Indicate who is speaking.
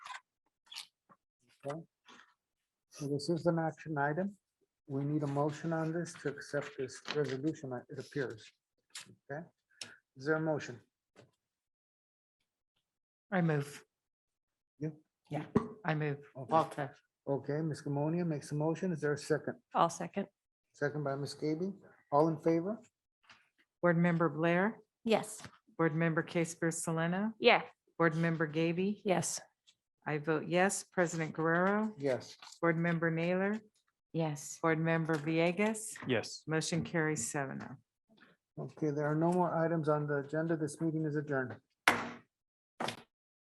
Speaker 1: Okay. So this is an action item. We need a motion on this to accept this resolution, uh, it appears. Okay, is there a motion?
Speaker 2: I move.
Speaker 1: You?
Speaker 2: Yeah, I move.
Speaker 1: Okay.
Speaker 2: Walter,
Speaker 1: Okay, Ms. Gamonia makes a motion. Is there a second?
Speaker 3: I'll second.
Speaker 1: Second by Ms. Gaby. All in favor?
Speaker 2: Board Member Blair,
Speaker 3: Yes.
Speaker 2: Board Member Casper Selena,
Speaker 3: Yeah.
Speaker 2: Board Member Gaby.
Speaker 3: Yes.
Speaker 2: I vote yes. President Guerrero,
Speaker 1: Yes.
Speaker 2: Board Member Naylor,
Speaker 3: Yes.
Speaker 2: Board Member Villegas,
Speaker 4: Yes.
Speaker 2: motion carries seven oh.
Speaker 1: Okay, there are no more items on the agenda. This meeting is adjourned.